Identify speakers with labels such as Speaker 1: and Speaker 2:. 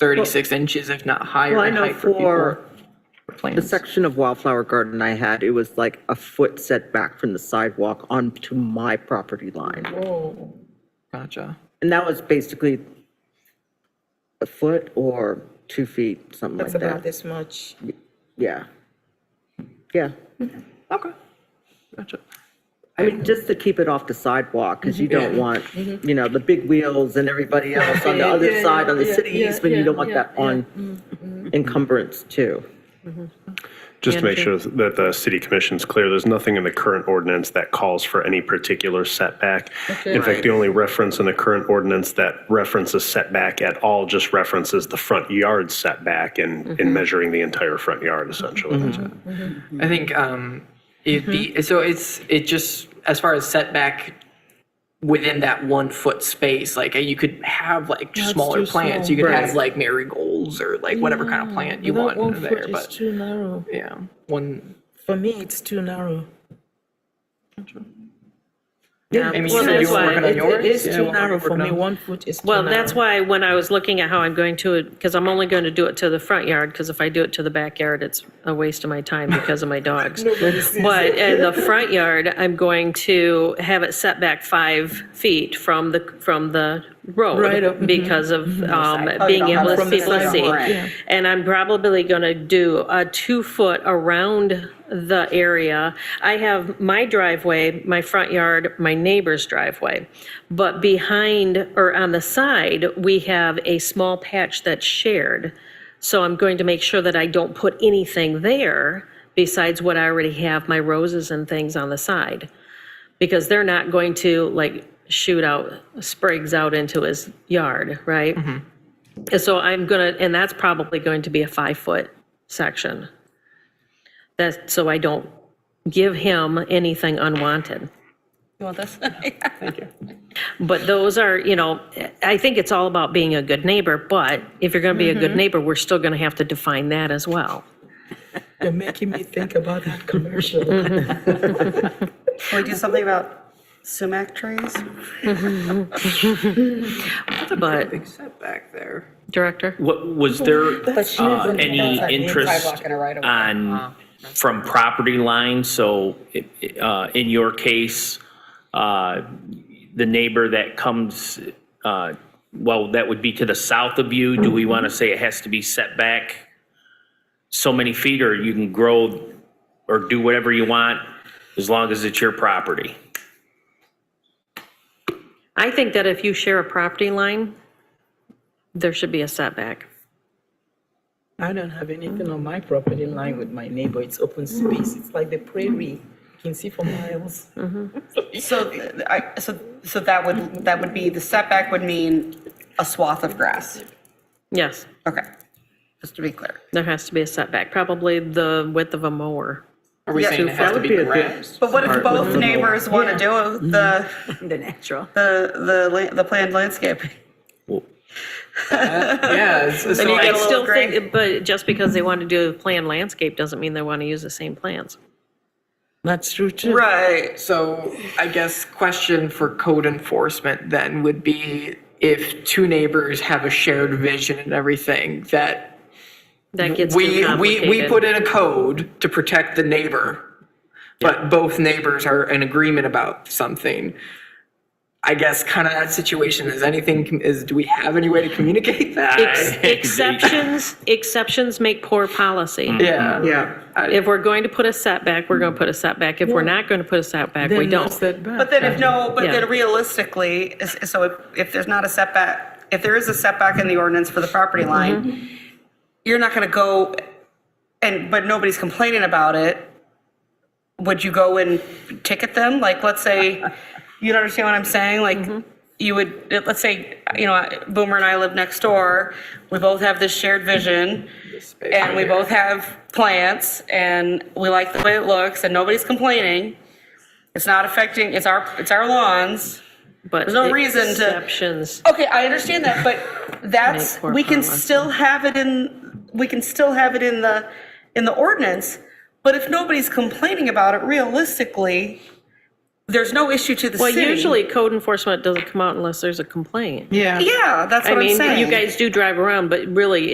Speaker 1: 36 inches, if not higher
Speaker 2: Well, I
Speaker 1: in
Speaker 2: know
Speaker 1: height for people.
Speaker 2: for
Speaker 1: for plants.
Speaker 2: The section of Wildflower Garden I had, it was like a foot setback from the sidewalk onto my property line.
Speaker 1: Oh, Gotcha.
Speaker 2: And that was basically a foot or two feet, something like
Speaker 3: That's about
Speaker 2: that.
Speaker 3: this much.
Speaker 2: Yeah. Yeah.
Speaker 1: Okay. Gotcha.
Speaker 2: Mm-hmm. I mean, just to keep it off the sidewalk, because you don't
Speaker 1: Yeah. Mm-hmm.
Speaker 2: want, you know, the big wheels and everybody else on the
Speaker 1: Yeah,
Speaker 2: other
Speaker 1: yeah,
Speaker 2: side on the
Speaker 1: yeah,
Speaker 2: city
Speaker 1: yeah,
Speaker 2: easement, you
Speaker 1: yeah,
Speaker 2: don't want
Speaker 1: yeah, Mm-hmm.
Speaker 2: that on encumbrance too.
Speaker 4: Just to make
Speaker 1: Andrew.
Speaker 4: sure that the city commission's clear, there's nothing in the current ordinance that calls for any particular setback. In fact, the only reference in the current ordinance that references setback at all just references the front yard setback in, in measuring the entire front yard essentially.
Speaker 1: I think um, it'd
Speaker 2: Mm-hmm.
Speaker 1: be so. It's it just as far as setback within that one foot space. Like uh, you could have like smaller plants. You could have like marigolds or like whatever kind of plant you want
Speaker 3: One
Speaker 1: in
Speaker 3: foot
Speaker 1: there.
Speaker 3: is
Speaker 1: But
Speaker 3: too narrow.
Speaker 1: yeah, one.
Speaker 3: For me, it's too narrow.
Speaker 1: Yeah, Amy, you
Speaker 5: well,
Speaker 1: said you
Speaker 5: that's
Speaker 1: were
Speaker 5: why
Speaker 1: working on
Speaker 3: It
Speaker 1: yours.
Speaker 3: it is
Speaker 1: Yeah,
Speaker 3: too
Speaker 1: we're
Speaker 3: narrow for
Speaker 1: working
Speaker 3: me.
Speaker 1: on-
Speaker 3: One foot is too narrow.
Speaker 5: Well, that's why when I was looking at how I'm going to, because I'm only going to do it to the front yard, because if I do it to the backyard, it's a waste of my time because of my dogs. But in the front yard, I'm going to have it set back five feet from the, from the
Speaker 3: Right up,
Speaker 5: road
Speaker 3: mhm.
Speaker 5: because of um,
Speaker 2: Oh, you
Speaker 5: being
Speaker 2: don't have
Speaker 5: able
Speaker 2: it
Speaker 5: to
Speaker 2: from the
Speaker 5: people
Speaker 2: sidewalk. Yeah.
Speaker 5: see. And I'm probably going to do a two-foot around the area. I have my driveway, my front yard, my neighbor's driveway. But behind, or on the side, we have a small patch that's shared. So I'm going to make sure that I don't put anything there besides what I already have, my roses and things on the side. Because they're not going to like shoot out sprigs out into his yard, right? And So I'm gonna, and that's probably going to be a five-foot section. That's, so I don't give him anything unwanted.
Speaker 3: Well, that's.
Speaker 5: But those are, you know, I think it's all about being a good neighbor, but if you're gonna be a
Speaker 1: Mm-hmm.
Speaker 5: good neighbor, we're still gonna have to define that as well.
Speaker 3: You're making me think about that commercial.
Speaker 6: Can we do something about sumac trees?
Speaker 5: But,
Speaker 1: setback there.
Speaker 5: Director?
Speaker 7: What, was there
Speaker 3: she
Speaker 7: uh,
Speaker 3: lives in
Speaker 7: any
Speaker 3: Kentucky,
Speaker 7: interest on, from property line? So it- it, uh, in your case, uh, the neighbor that comes, uh, well, that would be to the south of you, do we want to say it has to be set back so many feet, or you can grow or do whatever you want as long as it's your property?
Speaker 5: I think that if you share a property line, there should be a setback.
Speaker 3: I don't have anything on my property line with my neighbor. It's open space. It's like the prairie. You can see for miles.
Speaker 6: So, th- I, so, so that would, that would be, the setback would mean a swath of grass.
Speaker 5: Yes,
Speaker 6: Okay, just to be clear.
Speaker 5: there has to be a setback, probably the width of a mower.
Speaker 1: Are we
Speaker 6: Yeah,
Speaker 1: saying it has to
Speaker 2: would
Speaker 1: be
Speaker 2: be a good-
Speaker 1: grass?
Speaker 6: But what if both neighbors want to do the,
Speaker 8: The natural.
Speaker 6: the, the, la- the planned landscaping?
Speaker 7: Well,
Speaker 1: Yeah. it's- it's
Speaker 5: But
Speaker 1: like-
Speaker 5: I
Speaker 6: little
Speaker 5: still
Speaker 6: gray.
Speaker 5: think, but just because they want to do a planned landscape doesn't mean they want to use the same plans.
Speaker 3: That's true too.
Speaker 6: Right.
Speaker 1: So I guess question for code enforcement then would be if two neighbors have a shared vision and everything, that
Speaker 5: That gets too
Speaker 1: we, we,
Speaker 5: complicated.
Speaker 1: we put in a code to protect the neighbor, but both neighbors are in agreement about something. I guess kind of that situation is anything, is, do we have any way to communicate
Speaker 5: Ex-
Speaker 1: that?
Speaker 5: Exceptions, exceptions make poor policy.
Speaker 6: Mm.
Speaker 1: Yeah.
Speaker 2: Yeah.
Speaker 5: If we're going to put a setback, we're going to put a setback. If we're not going to put a setback, we don't.
Speaker 6: But then if no, but
Speaker 5: Yeah.
Speaker 6: then realistically, is- so if, if there's not a setback, if there is a setback in the ordinance for the property line, you're not gonna go, and, but nobody's complaining about it, would you go and ticket them? Like, let's say, you don't understand what I'm saying? Like, you would, let's say, you know, Boomer and I live next door, we both have this shared vision, and we both have plants, and we like the way it looks, and nobody's complaining. It's not affecting, it's our, it's our lawns.
Speaker 5: But
Speaker 6: There's no reason to-
Speaker 5: Exceptions,
Speaker 6: Okay, I understand that, but that's,
Speaker 5: Make more
Speaker 6: we
Speaker 5: fun
Speaker 6: can
Speaker 5: lessons.
Speaker 6: still have it in, we can still have it in the, in the ordinance, but if nobody's complaining about it realistically, there's no issue to the
Speaker 5: Well,
Speaker 6: city.
Speaker 5: usually code enforcement doesn't come out unless there's a complaint.
Speaker 3: Yeah.
Speaker 6: Yeah, that's what
Speaker 5: I
Speaker 6: I'm
Speaker 5: mean,
Speaker 6: saying.
Speaker 5: you guys do drive around, but really,